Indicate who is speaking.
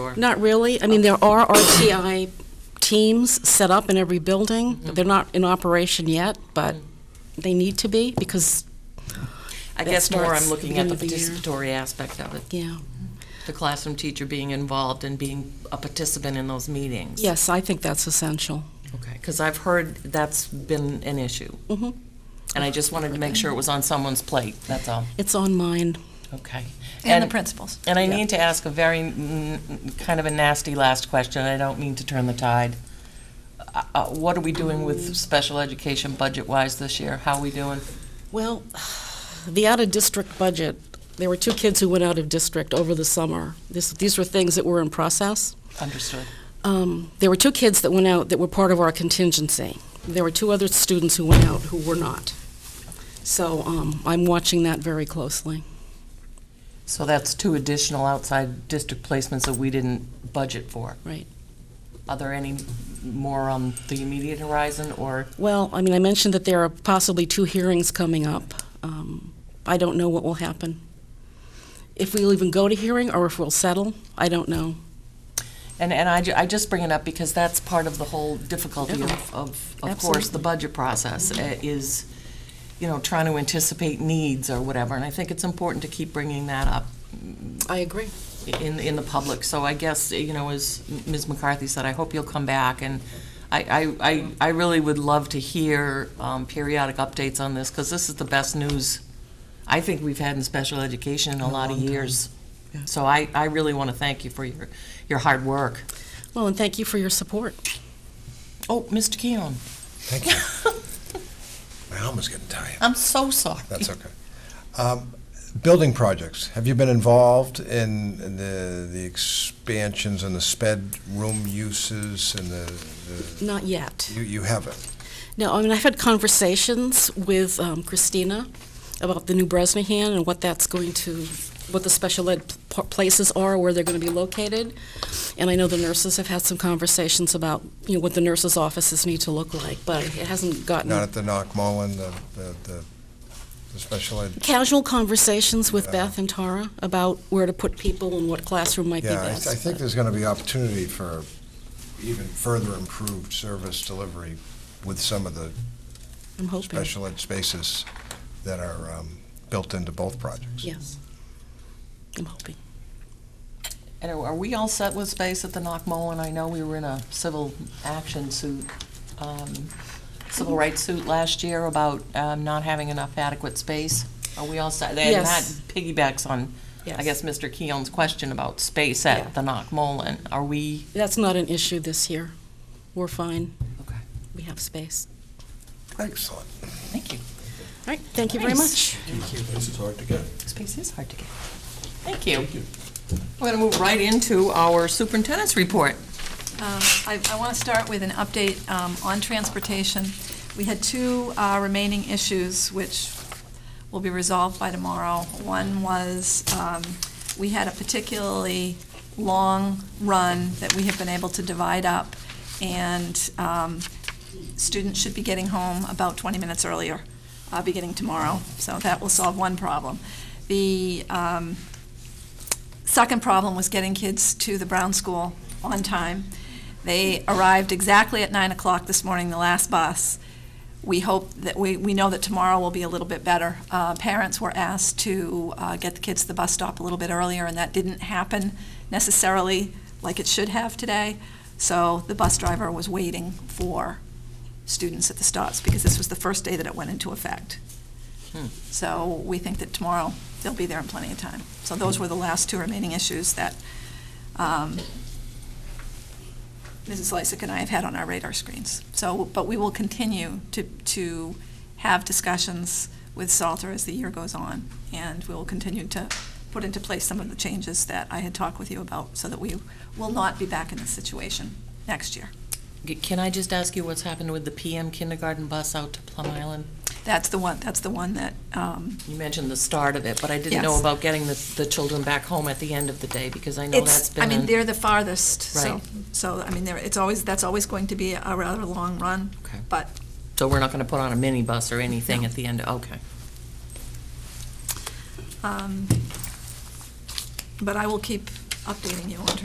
Speaker 1: or?
Speaker 2: Not really. I mean, there are RTI teams set up in every building. They're not in operation yet, but they need to be because,
Speaker 1: I
Speaker 2: That
Speaker 1: guess more
Speaker 2: starts
Speaker 1: I'm looking at the
Speaker 2: beginning of
Speaker 1: participatory aspect of it,
Speaker 2: yeah.
Speaker 1: the classroom teacher being involved and being a participant in those meetings.
Speaker 2: Yes, I think that's essential.
Speaker 1: Okay, because I've heard that's been an issue.
Speaker 2: Mhm.
Speaker 1: And I just wanted to make sure it was on someone's plate, that's all.
Speaker 2: It's on mine.
Speaker 1: Okay.
Speaker 3: And the principals.
Speaker 1: And I
Speaker 2: Yeah.
Speaker 1: need to ask a very, mm, kind of a nasty last question, I don't mean to turn the tide. Uh, uh, What are we doing with special education budget-wise this year? How are we doing?
Speaker 2: Well, the out-of-district budget, there were two kids who went out of district over the summer. This, these were things that were in process.
Speaker 1: Understood.
Speaker 2: Um, there were two kids that went out that were part of our contingency. There were two other students who went out who were not. So um, I'm watching that very closely.
Speaker 1: So that's two additional outside district placements that we didn't budget for.
Speaker 2: Right.
Speaker 1: Are there any more on the immediate horizon, or
Speaker 2: Well, I mean, I mentioned that there are possibly two hearings coming up. Um, I don't know what will happen. If we'll even go to hearing or if we'll settle, I don't know.
Speaker 1: And, and I, ju- I just bring it up because that's part of the whole difficulty of, of, of course, the
Speaker 2: Absolutely.
Speaker 1: budget process uh, is, you know, trying to anticipate needs or whatever. And I think it's important to keep bringing that up
Speaker 2: I agree.
Speaker 1: in, in the public. So I guess, you know, as Ms. McCarthy said, I hope you'll come back. And I, I, I, I really would love to hear um, periodic updates on this because this is the best news I think we've had in special education in a lot of years. So I, I really want to thank you for your, your hard work.
Speaker 2: Well, and thank you for your support.
Speaker 1: Oh, Mr. Keon,
Speaker 4: Thank you. My arm is getting tired.
Speaker 1: I'm so sorry.
Speaker 4: That's okay. Um, Building projects, have you been involved in in the the expansions and the sped room uses and the, the-
Speaker 2: Not yet.
Speaker 4: you you haven't?
Speaker 2: No, I mean, I've had conversations with um, Christina about the new Bresnahan and what that's going to, what the special ed p- places are, where they're going to be located. And I know the nurses have had some conversations about, you know, what the nurses' offices need to look like, but it hasn't gotten.
Speaker 4: Not at the Knock Mullen, the, the- the the special ed?
Speaker 2: casual conversations with
Speaker 4: Yeah.
Speaker 2: Beth and Tara about where to put people and what classroom might be
Speaker 4: Yeah, I I
Speaker 2: best.
Speaker 4: think there's going to be opportunity for even further improved service delivery with some of the
Speaker 2: I'm hoping,
Speaker 4: special ed spaces that are um, built into both projects.
Speaker 2: yes. I'm hoping.
Speaker 1: And are are we all set with space at the Knock Mullen? I know we were in a civil action suit, um, civil rights suit last year about um, not having enough adequate space. Are we all set? And that
Speaker 2: Yes.
Speaker 1: piggybacks on, I
Speaker 2: Yes.
Speaker 1: guess, Mr. Keon's question about space
Speaker 2: Yeah.
Speaker 1: at the Knock Mullen. Are we?
Speaker 2: That's not an issue this year. We're fine.
Speaker 1: Okay.
Speaker 2: We have space.
Speaker 4: Excellent.
Speaker 1: Thank you.
Speaker 2: All right, thank you very
Speaker 1: Nice.
Speaker 2: much.
Speaker 5: This is hard to get.
Speaker 1: Space is hard to get. Thank you. We're going to move right into our superintendent's report.
Speaker 3: Um, I, I want to start with an update um, on transportation. We had two uh, remaining issues which will be resolved by tomorrow. One was, um, we had a particularly long run that we have been able to divide up, and um, students should be getting home about 20 minutes earlier, uh, beginning tomorrow. So that will solve one problem. The um, second problem was getting kids to the Brown School on time. They arrived exactly at nine o'clock this morning, the last bus. We hope that, we, we know that tomorrow will be a little bit better. Uh, parents were asked to, uh, get the kids to the bus stop a little bit earlier, and that didn't happen necessarily like it should have today. So the bus driver was waiting for students at the stops, because this was the first day that it went into effect. So we think that tomorrow, they'll be there in plenty of time. So those were the last two remaining issues that um, Mrs. Lysick and I have had on our radar screens. So, but we will continue to, to have discussions with Salter as the year goes on, and we will continue to put into place some of the changes that I had talked with you about, so that we will not be back in this situation next year.
Speaker 1: G- Can I just ask you what's happened with the PM kindergarten bus out to Plum Island?
Speaker 3: That's the one, that's the one that, um,
Speaker 1: You mentioned the start of it, but I didn't know
Speaker 3: Yes.
Speaker 1: about getting the, the children back home at the end of the day, because I know that's
Speaker 3: It's,
Speaker 1: been.
Speaker 3: I mean,
Speaker 1: an-
Speaker 3: they're the farthest, so,
Speaker 1: Right.
Speaker 3: so, I mean, there, it's always, that's always going to be a rather long run,
Speaker 1: Okay.
Speaker 3: but
Speaker 1: So we're not gonna put on a minibus or anything at the end, okay.
Speaker 3: um, But I will keep updating you on